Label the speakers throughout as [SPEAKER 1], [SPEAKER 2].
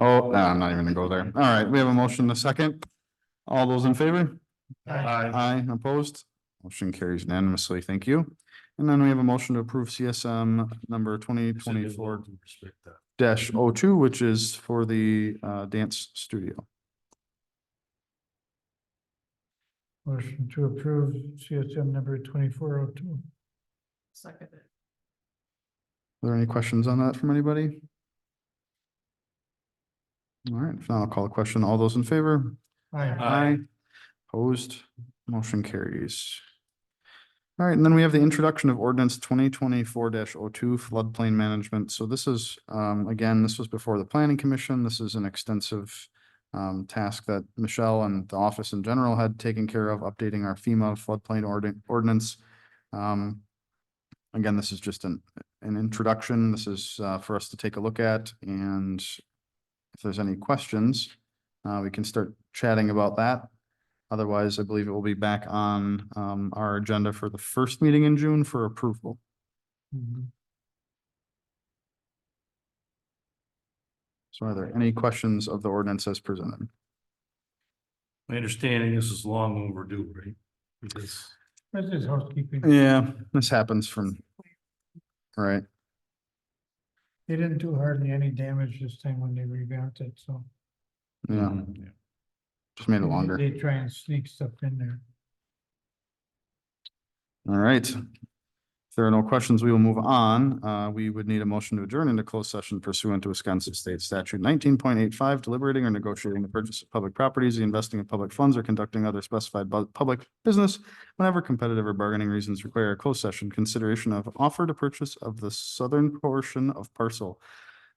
[SPEAKER 1] Oh, no, I'm not even gonna go there. All right, we have a motion in a second. All those in favor? Aye, opposed? Motion carries unanimously. Thank you. And then we have a motion to approve CSM number twenty twenty-four dash oh two, which is for the uh dance studio.
[SPEAKER 2] Motion to approve CSM number twenty-four oh two.
[SPEAKER 3] Second.
[SPEAKER 1] Are there any questions on that from anybody? All right, if not, I'll call a question. All those in favor?
[SPEAKER 2] Aye.
[SPEAKER 1] Aye. Opposed, motion carries. All right, and then we have the introduction of ordinance twenty twenty-four 2 floodplain management. So this is, um, again, this was before the planning commission. This is an extensive um, task that Michelle and the office in general had taken care of, updating our FEMA floodplain ordin- ordinance. Um, again, this is just an, an introduction. This is, uh, for us to take a look at and if there's any questions, uh, we can start chatting about that. Otherwise, I believe it will be back on um our agenda for the first meeting in June for approval.
[SPEAKER 2] Mm-hmm.
[SPEAKER 1] So are there any questions of the ordinance as presented?
[SPEAKER 4] My understanding, this is long overdue, right? Because
[SPEAKER 2] This is housekeeping.
[SPEAKER 1] Yeah. This happens from. Right,
[SPEAKER 2] They didn't do hardly any damage this time when they revamped it, so.
[SPEAKER 1] yeah,
[SPEAKER 4] um,
[SPEAKER 1] just made it
[SPEAKER 2] maybe
[SPEAKER 1] longer.
[SPEAKER 2] They try and sneak stuff in there.
[SPEAKER 1] All right. If there are no questions, we will move on. Uh, we would need a motion to adjourn into closed session pursuant to Wisconsin State Statute nineteen point eight five, deliberating or negotiating the purchase of public properties, the investing of public funds, or conducting other specified bu- public business whenever competitive or bargaining reasons require a closed session consideration of offer to purchase of the southern portion of parcel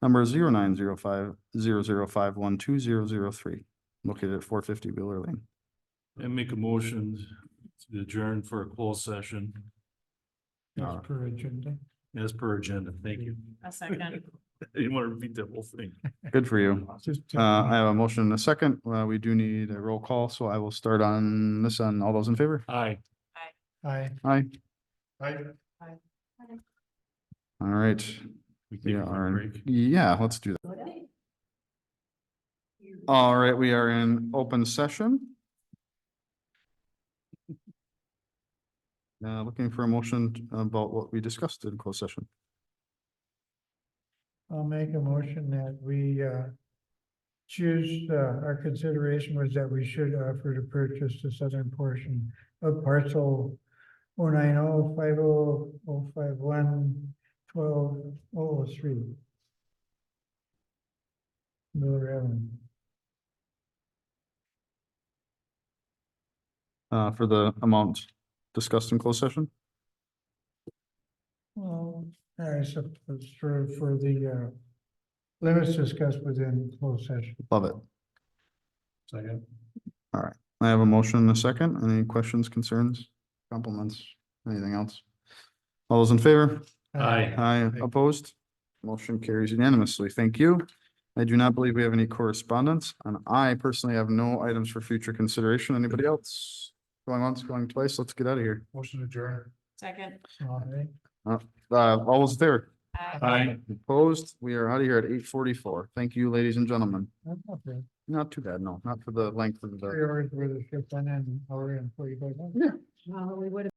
[SPEAKER 1] number zero nine zero five zero zero five one two zero zero three, located at four fifty Wheeler Lane.
[SPEAKER 4] and make a motion to adjourn for a closed session
[SPEAKER 2] As
[SPEAKER 4] Uh.
[SPEAKER 2] per agenda.
[SPEAKER 4] as per agenda. Thank you.
[SPEAKER 3] A second.
[SPEAKER 4] You want to repeat that whole thing?
[SPEAKER 1] Good for you.
[SPEAKER 2] Just,
[SPEAKER 1] Uh,
[SPEAKER 4] Mm-hmm.
[SPEAKER 1] I have a motion and a second. Uh, we do need a roll call, so I will start on this on all those in favor.
[SPEAKER 4] Aye.
[SPEAKER 2] Aye.
[SPEAKER 1] Aye.
[SPEAKER 4] Aye.
[SPEAKER 1] All right.
[SPEAKER 4] We
[SPEAKER 1] We
[SPEAKER 4] take a quick
[SPEAKER 1] are,
[SPEAKER 4] break.
[SPEAKER 1] yeah, let's do that. All right, we are in open session. Uh, looking for a motion about what we discussed in closed session.
[SPEAKER 2] I'll make a motion that we uh. Choose, uh, our consideration was that we should offer to purchase the southern portion of parcel. Oh nine oh five oh oh five one twelve oh oh three. Miller Avenue.
[SPEAKER 1] Uh, for the amount discussed in closed session.
[SPEAKER 2] Well, I suppose for, for the, uh. Limits discussed within closed session.
[SPEAKER 1] Love it.
[SPEAKER 4] Second.
[SPEAKER 1] I have a motion and a second. Any questions, concerns, compliments, anything else? All those in favor?
[SPEAKER 4] Aye.
[SPEAKER 1] Aye, opposed. Motion carries unanimously. Thank you. I do not believe we have any correspondence, and I personally have no items for future consideration. Anybody else? Going once, going twice, let's get out of here.
[SPEAKER 4] Motion adjourned.
[SPEAKER 3] Second.
[SPEAKER 2] Aye.
[SPEAKER 1] Uh, all those there,
[SPEAKER 2] Uh,
[SPEAKER 4] Aye.
[SPEAKER 1] opposed, we are out of here at eight forty-four. Thank you, ladies and gentlemen.
[SPEAKER 2] That's not bad.
[SPEAKER 1] Not too bad, no, not for the length of the.
[SPEAKER 2] Three hours worth of shift on and hour and forty-five minutes.
[SPEAKER 3] Well, we would have